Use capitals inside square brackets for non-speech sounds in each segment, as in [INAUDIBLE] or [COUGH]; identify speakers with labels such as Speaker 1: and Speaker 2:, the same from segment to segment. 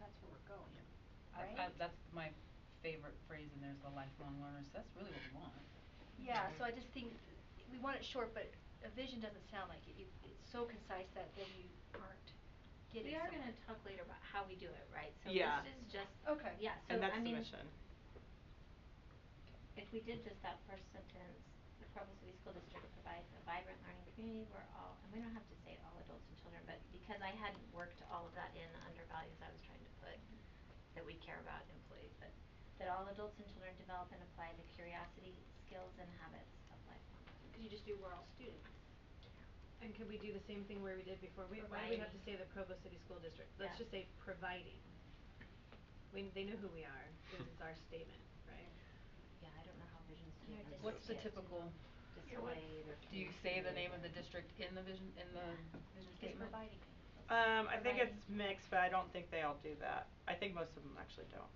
Speaker 1: that's where we're going,
Speaker 2: I-
Speaker 1: right?
Speaker 2: I- that's my favorite phrase in there is the lifelong learners, that's really what we want.
Speaker 1: Yeah, so I just think we want it short, but a vision doesn't sound like it. You, it's so concise that then you aren't getting
Speaker 3: We are
Speaker 1: somewhere.
Speaker 3: gonna talk later about how we do it, right?
Speaker 4: Yeah.
Speaker 3: So this is just.
Speaker 1: Okay.
Speaker 3: Yeah, so
Speaker 4: And that's
Speaker 3: I
Speaker 4: the
Speaker 3: mean,
Speaker 4: mission.
Speaker 3: if we did just that first sentence, the Provo City School District provides a vibrant learning community where all, and we don't have to say all adults and children, but because I hadn't worked all of that in under values I was trying to put, that we care about employees, but that all adults and children develop and apply the curiosity, skills, and habits of lifelong learning.
Speaker 1: Could you just do we're all students?
Speaker 5: And could we do the same thing where we did before? We, why do we have to say the Provo City School District? Let's
Speaker 3: Yeah.
Speaker 5: just say providing. We, they know who we are, because it's our statement, right?
Speaker 3: Yeah, I don't know how vision
Speaker 1: Yeah,
Speaker 3: statements.
Speaker 1: What's
Speaker 2: What's the
Speaker 3: get
Speaker 2: typical,
Speaker 3: Displayed or.
Speaker 2: do you say the name of the
Speaker 3: communicated.
Speaker 2: district in the vision, in the vision
Speaker 1: It's
Speaker 2: statement?
Speaker 1: providing.
Speaker 4: Um, I
Speaker 3: Providing.
Speaker 4: think it's mixed, but I don't think they all do that. I think most of them actually don't,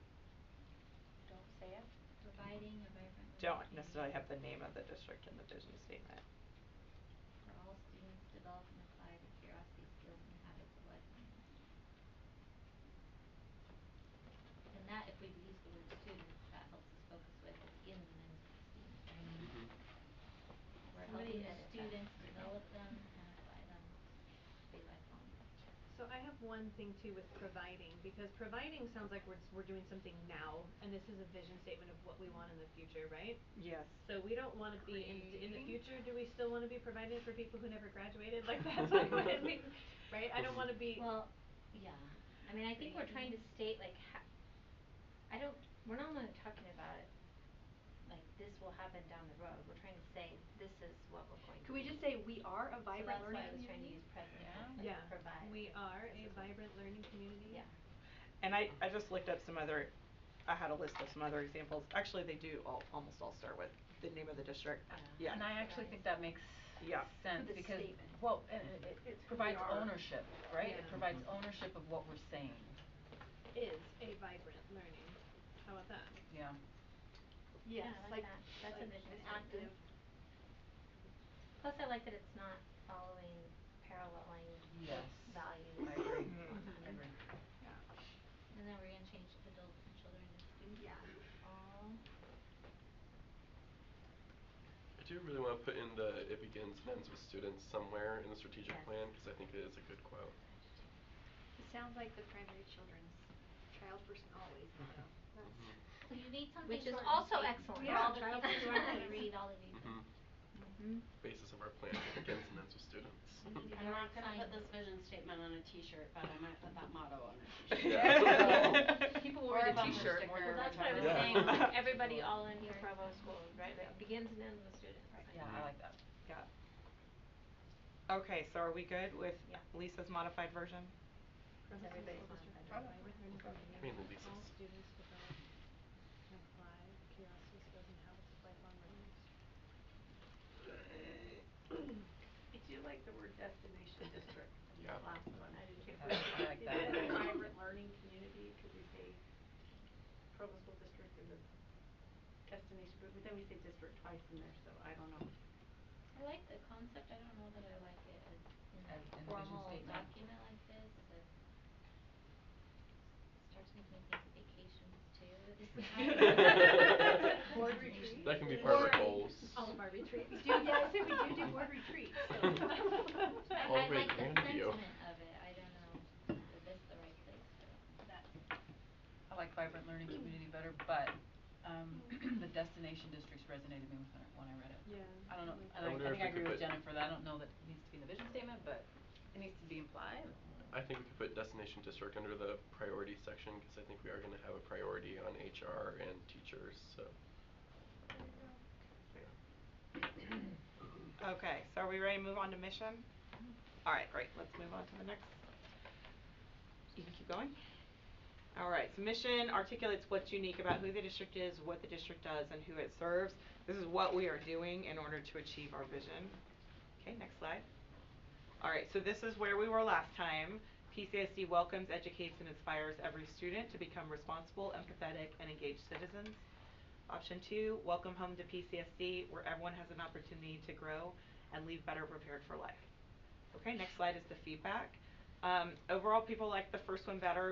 Speaker 1: Don't say it.
Speaker 3: Providing a vibrant.
Speaker 4: don't necessarily have the name of the district in the vision statement.
Speaker 3: For all students, develop and apply the curiosity, skills, and habits of lifelong learning. And that, if we use the word students, that helps us focus with what's in the minds of the student, right?
Speaker 4: Mm-hmm.
Speaker 3: We're
Speaker 5: Somebody
Speaker 3: helping the
Speaker 5: edit that.
Speaker 3: students develop them and apply them to be lifelong learners.
Speaker 5: So I have one thing too with providing, because providing sounds like we're, s- we're doing something now, and this is a vision statement of what we want in the future, right?
Speaker 4: Yes.
Speaker 5: So we don't wanna be, in, in the
Speaker 3: Creating.
Speaker 5: future, do we still wanna be providing for people who never graduated?
Speaker 3: [LAUGHS]
Speaker 5: Like that's like what I mean, right? I don't wanna be,
Speaker 3: Well, yeah, I mean, I think we're trying to state like ha- I don't, we're not only talking about it, like this will happen down the road, we're trying to say this is what we're going to.
Speaker 1: Could we
Speaker 3: be.
Speaker 1: just say we are a vibrant learning
Speaker 3: So that's why I was trying to
Speaker 1: community?
Speaker 3: use present tense, like
Speaker 5: yeah,
Speaker 3: provide.
Speaker 5: we are
Speaker 3: as
Speaker 5: a
Speaker 3: opposed-
Speaker 5: vibrant learning community.
Speaker 3: Yeah.
Speaker 4: And I, I just looked up some other, I had a list of some other examples. Actually, they do all, almost all start with the name of the district.
Speaker 3: Yeah.
Speaker 4: Yeah.
Speaker 2: And I actually think that makes
Speaker 4: Yeah.
Speaker 2: sense
Speaker 1: With the
Speaker 2: because,
Speaker 1: statement.
Speaker 2: well, and it it
Speaker 1: It's who we
Speaker 2: it provides
Speaker 1: are.
Speaker 2: ownership, right?
Speaker 5: Yeah.
Speaker 2: It provides ownership of what we're saying,
Speaker 5: Is a vibrant learning. How about that?
Speaker 2: yeah.
Speaker 1: Yes,
Speaker 3: Yeah, I like
Speaker 1: like,
Speaker 3: that. That's a
Speaker 1: like
Speaker 3: vision
Speaker 1: an
Speaker 3: statement.
Speaker 1: active.
Speaker 3: Plus, I like that it's not following, paralleling
Speaker 2: Yes.
Speaker 3: values.
Speaker 2: I agree,
Speaker 1: Mm-hmm.
Speaker 4: Mhm.
Speaker 2: I agree.
Speaker 3: And then we're gonna change adults and children to students.
Speaker 1: Yeah.
Speaker 3: All.
Speaker 6: I do really want to put in the it begins and ends with students somewhere in the strategic
Speaker 3: Yes.
Speaker 6: plan because I think it is a good quote.
Speaker 1: It sounds like the primary children's child person always motto.
Speaker 6: Mm-hmm.
Speaker 1: That's-
Speaker 3: So you need something
Speaker 1: Which is
Speaker 3: short and
Speaker 1: also
Speaker 3: sweet
Speaker 1: excellent.
Speaker 3: For
Speaker 1: Yeah.
Speaker 3: all the people who are
Speaker 1: [LAUGHS]
Speaker 3: gonna read all of these.
Speaker 6: Mhm.
Speaker 3: Mm-hmm.
Speaker 6: Basis of our plan it begins and ends with students.
Speaker 7: I'm not gonna put this vision statement on a t-shirt, but I might put that motto on a
Speaker 4: [LAUGHS]
Speaker 7: t-shirt.
Speaker 4: Yeah.
Speaker 2: People
Speaker 7: Or
Speaker 2: wear
Speaker 7: a
Speaker 2: the
Speaker 7: bumper
Speaker 2: t-shirt
Speaker 7: sticker.
Speaker 2: more
Speaker 3: Well,
Speaker 2: than
Speaker 3: that's what I was
Speaker 6: Yeah.
Speaker 3: saying, like everybody all in here Provo schools, right,
Speaker 1: Yeah.
Speaker 3: like begins and ends with students.
Speaker 2: Yeah, I like that.
Speaker 4: Yeah. Okay, so are we good with
Speaker 3: Yeah.
Speaker 4: Lisa's modified version?
Speaker 5: From the
Speaker 3: everybody's
Speaker 5: school district
Speaker 3: modified
Speaker 1: Probably.
Speaker 5: to vibrant learning
Speaker 6: I mean,
Speaker 5: community.
Speaker 6: Lisa's.
Speaker 5: All students develop and apply the curiosity, skills, and habits of lifelong learning.
Speaker 8: I do like the word destination district,
Speaker 6: Yeah.
Speaker 8: the last one.
Speaker 3: I do too.
Speaker 8: If
Speaker 2: I
Speaker 8: we-
Speaker 2: like
Speaker 8: if
Speaker 2: that.
Speaker 8: it's a vibrant learning community, could we say Provo School District is a destination, but then we say district twice in there, so I don't know.
Speaker 3: I like the concept, I don't know that I like it as in
Speaker 2: As in the
Speaker 3: a
Speaker 2: vision
Speaker 3: formal
Speaker 2: statement.
Speaker 3: document like this, it starts making me think of vacations too [LAUGHS] at this
Speaker 5: [LAUGHS]
Speaker 6: [LAUGHS]
Speaker 3: time. [LAUGHS]
Speaker 1: Board
Speaker 3: retreat.
Speaker 6: That can be part of
Speaker 1: Or-
Speaker 6: our goals.
Speaker 5: All of our retreats.
Speaker 1: We do, yeah, I say we do do board retreats, so. [LAUGHS]
Speaker 3: I
Speaker 6: [LAUGHS] Oh,
Speaker 3: I
Speaker 6: wait,
Speaker 3: like the
Speaker 6: and you.
Speaker 3: sentiment of it, I don't know if this the right place for it.
Speaker 2: I like vibrant learning community better, but um [CLEARS THROAT] the destination districts resonated with me when I- when I read it.
Speaker 5: Yeah.
Speaker 2: I don't know,
Speaker 5: like
Speaker 2: and
Speaker 6: I
Speaker 2: I
Speaker 6: wonder
Speaker 2: I think I
Speaker 6: if we could
Speaker 2: agree with
Speaker 6: put-
Speaker 2: Jennifer that I don't know that it needs to be in the vision statement, but it needs to be implied.
Speaker 6: I think we could put destination district under the priority section because I think we are going to have a priority on HR and teachers. So. Yeah.
Speaker 4: Okay, so are we ready to move on to mission? Alright, great, let's move on to the next. You can keep going. Alright, so mission articulates what's unique about who the district is, what the district does, and who it serves. This is what we are doing in order to achieve our vision. Okay, next slide. Alright, so this is where we were last time. PCSD welcomes, educates, and inspires every student to become responsible, empathetic, and engaged citizens. Option two, welcome home to PCSD, where everyone has an opportunity to grow and leave better prepared for life. Okay, next slide is the feedback. Um, overall, people like the first one better,